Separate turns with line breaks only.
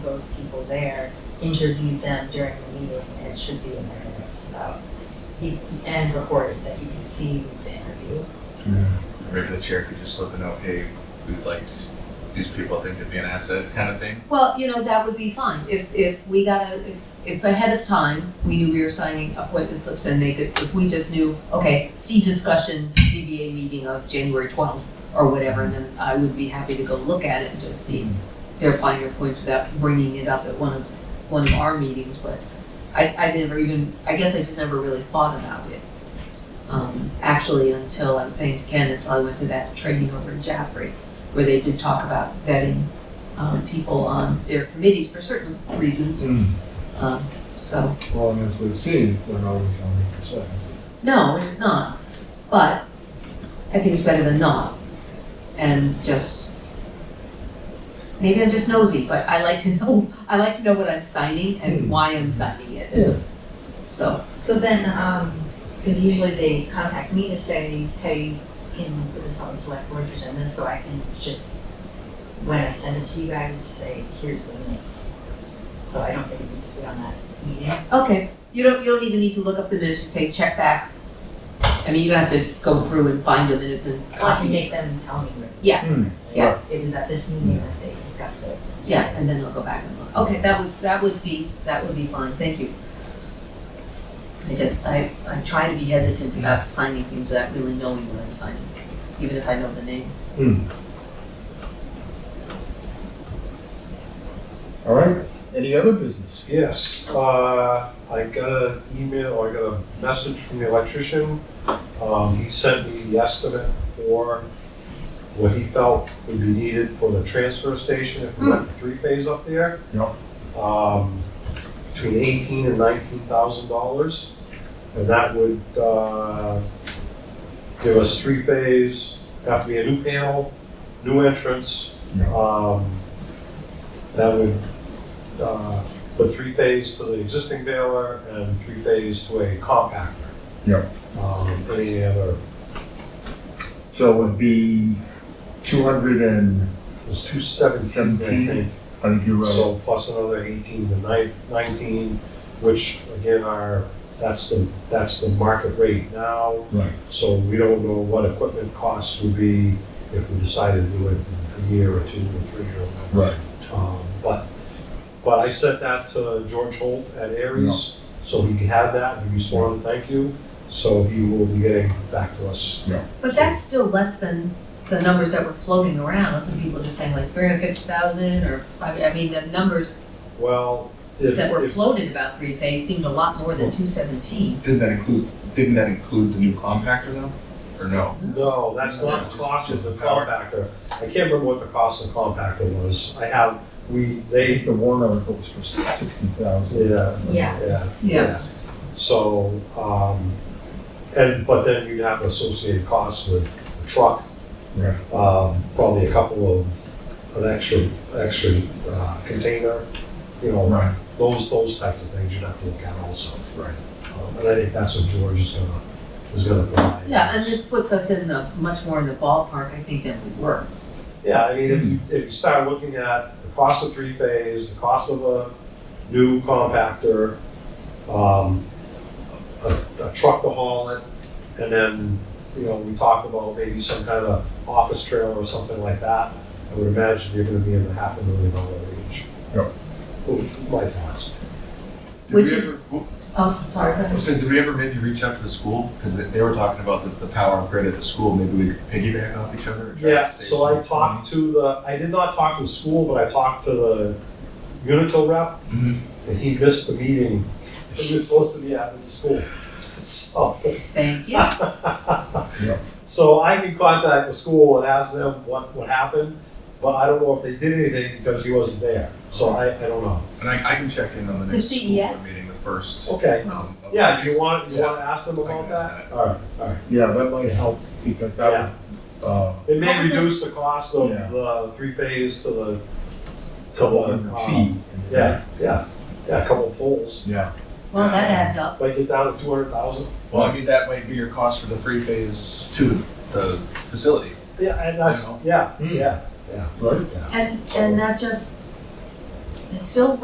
those people there, interviewed them during the meeting, and it should be in the minutes about, he- and recorded that you can see the interview.
Maybe the chair could just slip a note, hey, we'd like s- these people think to be an asset kind of thing.
Well, you know, that would be fine, if, if we got a, if, if ahead of time, we knew we were signing appointment slips and they could, if we just knew, okay, see discussion, DBA meeting of January twelfth or whatever, and then I would be happy to go look at it and just see their finer points without bringing it up at one of, one of our meetings, but I, I never even, I guess I just never really thought about it. Um, actually, until I was saying to Ken, until I went to that training over in Jaffrey, where they did talk about vetting um, people on their committees for certain reasons.
Mm.
Um, so,
Well, and as we've seen, they're not always on the percent.
no, it's not. But I think it's better than not. And just, maybe I'm just nosy, but I like to know, I like to know what I'm signing and
Hmm.
why I'm signing it. as a- So,
So then, um, because usually they contact me to say, hey, can you put this on the select board's agenda, so I can just, when I send it to you guys, say, here's the minutes. So I don't think it needs to be on that meeting.
okay, you don't, you don't even need to look up the minutes, just say check back. I mean, you don't have to go through and find the minutes and
Well, I can
copy.
make them tell me where.
Yeah, yeah.
It was at this meeting that they discussed it.
Yeah, and then they'll go back and look. Okay, that would, that would be, that would be fine, thank you. I just, I, I try to be hesitant about signing things without really knowing what I'm signing, even if I know the name.
All right, any other business?
Yes, uh, I got an email, or I got a message from the electrician. Um, he sent me the estimate for what he felt would be needed for the transfer station if we went three phase up there.
Yep.
Um, between eighteen and nineteen thousand dollars, and that would, uh, give us three phase, have to be a new panel, new entrance.
Yeah.
Um, that would, uh, put three phase to the existing baler and three phase to a compactor.
Yep.
Um, any other,
So it would be two hundred and,
it was two seventeen, I
Seventeen.
think.
I think you're right.
So plus another eighteen to nine- nineteen, which again are, that's the, that's the market rate now.
Right.
So we don't know what equipment costs would be if we decided to do it in a year or two or three or whatever.
Right.
Um, but, but I sent that to George Holt at Aries, so he had that, and he responded, thank you. So he will be getting back to us.
But that's still less than the numbers that were floating around, some people just saying like three hundred fifty thousand or, I, I mean, the numbers
Well, if,
that were
if,
floated about three phase seemed a lot more than two seventeen.
Didn't that include, didn't that include the new compactor though? Or no?
no, that's not the cost of the compactor. I can't remember what the cost of the compactor was. I have, we,
I
they,
think the warrant article was for sixty thousand.
yeah,
Yeah.
yeah.
Yeah.
So, um, and, but then you'd have associated costs with the truck.
Right.
Um, probably a couple of, an extra, extra, uh, container, you know,
Right.
those, those types of things you'd have to look at also.
Right.
Um, And I think that's what George is gonna, is gonna provide.
Yeah, and this puts us in the, much more in the ballpark, I think, than we were.
Yeah, I mean, if you, if you start looking at the cost of three phase, the cost of a new compactor, um, a, a truck to haul it, and then, you know, we talk about maybe some kind of office trailer or something like that, I would imagine you're gonna be in the half a million dollar range.
Yep.
Oh, My thoughts.
Did
Which
we
is-
ever- oop,
Oh, sorry.
I was saying, did we ever maybe reach out to the school? Because they, they were talking about the, the power grid at the school, maybe we could piggyback off each other. and try to
Yeah,
save
so I
some
talked to the, I did not talk to the school, but I talked to the Unitil rep,
Mhm.
Mm-hmm.
and he missed the meeting. He was supposed to be at the school. So,
Thank you.
so I can contact the school and ask them what, what happened, but I don't know if they did anything because he wasn't there, so I, I don't know.
money. And I, I can check in on the
To E
next school
CES?
board meeting, the first.
Okay,
um, of
yeah, do you
these.
want, you
Yeah.
wanna ask them
I can
about
ask
that? Alright, alright.
Yeah, that might help because that, would, uh,
It may
Well, we can-
reduce the cost of
Yeah.
the three phase to the, to the, uh,
fee.
Yeah, yeah, yeah, a couple of poles.
Yeah.
Well, that adds up.
Might get down to two hundred thousand.
Well, I mean, that might be your cost for the three phase to the facility.
Yeah, and that's, yeah,
Mm.
yeah,
Right.
And, and that just
it's still